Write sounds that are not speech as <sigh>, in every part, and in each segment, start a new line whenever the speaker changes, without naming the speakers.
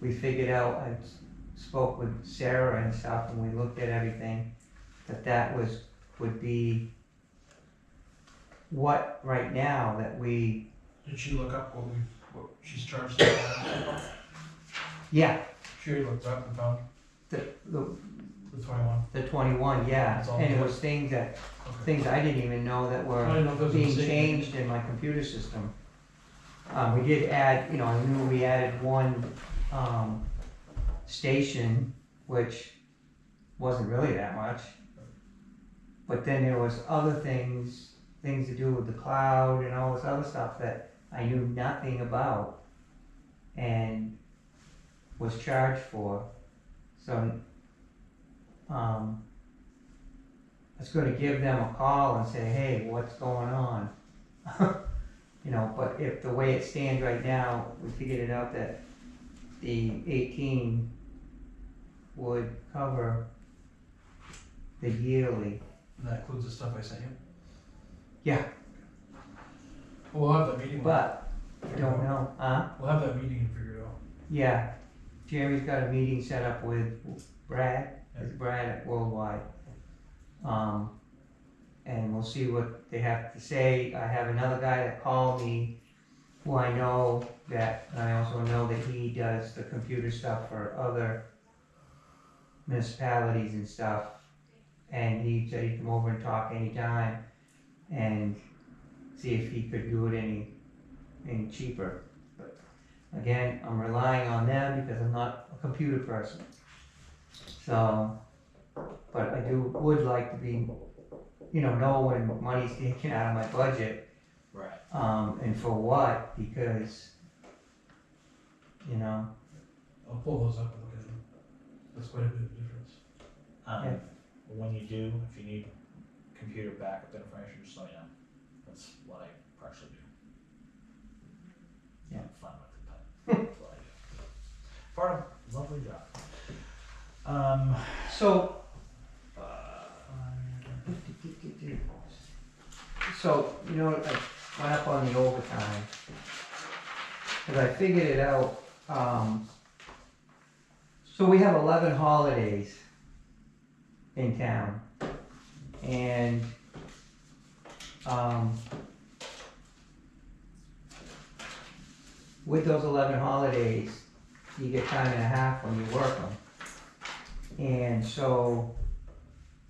we figured out, I spoke with Sarah and stuff, and we looked at everything, that that was, would be what, right now, that we,
Did she look up what we, what she's charged? us?
yeah,
She already looked up and found
the, the,
the twenty-one.
the twenty-one, yeah,
It's all
and it
good.
was things that,
Okay.
things I didn't even know that were.
I didn't know if there was a
being
mistake.
changed in my computer system. Um, we did add, you know, I knew we added one, um, station, which wasn't really that much. But then there was other things, things to do with the cloud and all this other stuff that I knew nothing about and was charged for, so, um, I was gonna give them a call and say, hey, what's going on? <laughs> You know, but if the way it stands right now, we figured it out that the eighteen would cover the yearly.
And that includes the stuff I sent you?
Yeah.
We'll have that meeting.
But, I don't know, huh?
We'll have that meeting and figure it out.
Yeah, Jeremy's got a meeting set up with Brad, with Brad at Worldwide. Um, and we'll see what they have to say. I have another guy that called me who I know that, and I also know that he does the computer stuff for other municipalities and stuff. And he said he'd come over and talk anytime and see if he could do it any, any cheaper. Again, I'm relying on them because I'm not a computer person. So, but I do, would like to be, you know, know when money's taken out of my budget,
Right.
um, and for what, because, you know,
I'll pull those up and look at them. That's quite a bit of difference.
Yeah.
Um, when you do, if you need computer backup information, just let me know. That's what I partially do.
Yeah.
I'm fun with it, but that's what I do. Part of lovely job. Um,
so.
uh,
So, you know, I went up on the overtime, cause I figured it out, um. So we have eleven holidays in town. And, um, with those eleven holidays, you get time and a half when you work them. And so,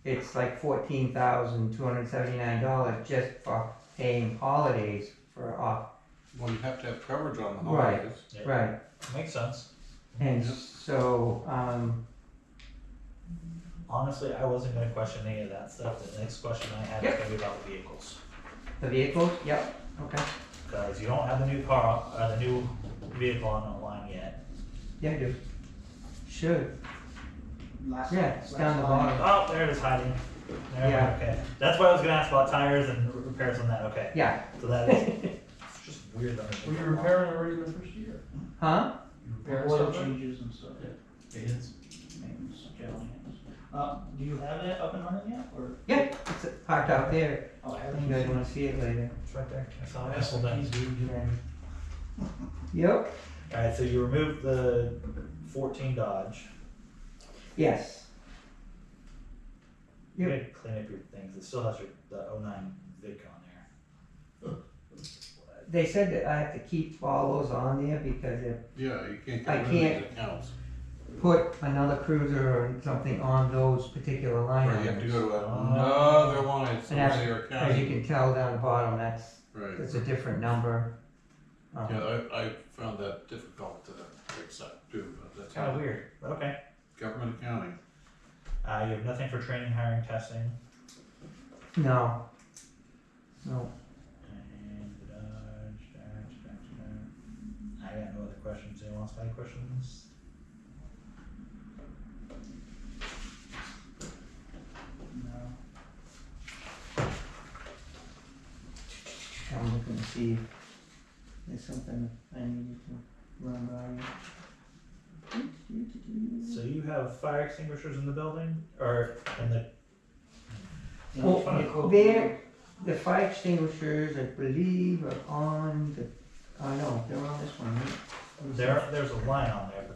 it's like fourteen thousand two hundred seventy-nine dollars just for paying holidays for off,
Well, you have to have coverage on the
Right.
holidays.
yeah,
right?
Makes sense.
And
Yeah.
so, um,
Honestly, I wasn't gonna question any of that stuff. The next question I had is
Yep.
gonna be about vehicles.
the vehicles, yep, okay,
Cause you don't have the new car, uh, the new vehicle on the line yet.
yeah, I do. Should,
Last,
yeah, it's down the
last line.
bottom,
Oh, there it is hiding. There,
Yeah.
okay. That's what I was gonna ask about tires and r- repairs on that, okay.
yeah,
So that is, it's just weird that I
Were
made
you
that long.
repairing already in the first year?
huh?
You repairing
Oil
something?
changes and stuff.
Yeah. Maintenance.
Maintenance, general maintenance. Uh, do you have it up and running yet, or?
Yeah, it's parked out there,
Oh, I
if
haven't
you guys
seen
wanna see it later.
It's right there. I saw
Oh,
it.
that's the keys, dude. You
Yeah.
know.
Yep,
Alright, so you removed the fourteen Dodge.
yes,
You
Yep.
gotta clean up your things. It still has your, the oh nine Vic on there.
they said that I have to keep all those on there because if
Yeah, you can't
I
get rid of
can't-
these accounts.
put another cruiser or something on those particular line
Or you have to
items.
go to
Oh.
another one, it's
And that's-
another
As you
account.
can tell down the bottom, that's,
Right,
that's a different number. Um,
yeah, I, I found that difficult to accept too, but that's.
Oh,
It's kinda weird, but okay.
Government accounting,
Uh, you have nothing for training, hiring, testing.
No. No,
And the Dodge, Dodge, Dodge, Dodge. I got no other questions. Anyone else got any questions?
it. No.
I'm looking to see if there's something I needed to run by you.
So you have fire extinguishers in the building or in the
Yeah,
Well,
it's funny, cool.
there- The fire extinguishers, I believe, are on the, oh no, they're on this one, right?
there there's a line on there, but